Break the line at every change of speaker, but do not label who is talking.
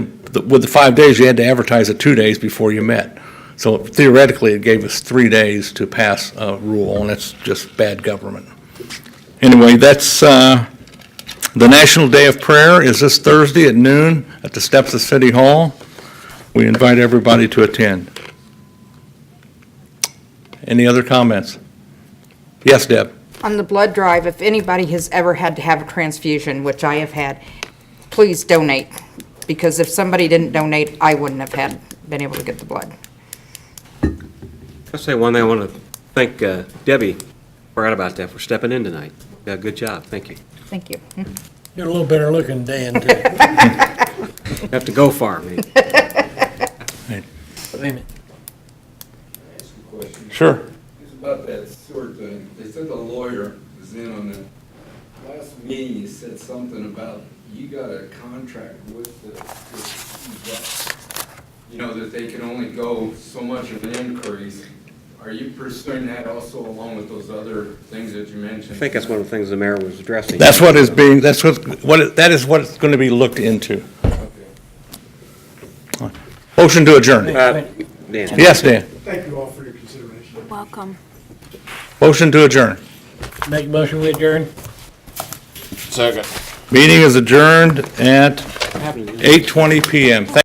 the- with the five days, you had to advertise it two days before you met. So theoretically, it gave us three days to pass a rule, and it's just bad government. Anyway, that's, uh, the National Day of Prayer is this Thursday at noon at the steps of City Hall. We invite everybody to attend. Any other comments? Yes, Deb?
On the blood drive, if anybody has ever had to have a transfusion, which I have had, please donate, because if somebody didn't donate, I wouldn't have had, been able to get the blood.
I'll say one thing, I want to thank uh, Debbie, forgot about that, for stepping in tonight. Yeah, good job, thank you.
Thank you.
You're a little better looking, Dan, too.
Have to go far, man.
Wait a minute.
ask you a question?
Sure.
It's about that sewer thing. They said the lawyer was in on it. Last meeting, you said something about you got a contract with the, with- you know, that they can only go so much of an increase. Are you pursuing that also along with those other things that you mentioned?
I think that's one of the things the mayor was addressing.
That's what is being, that's what, what, it- that is what it's going to be looked into.
Okay.
Motion to adjourn.
Uh, Dan.
Yes, Dan?
Thank you all for your consideration.
Welcome.
Motion to adjourn.
Make a motion, we adjourn?
Meeting is adjourned at 8:20 PM. Thank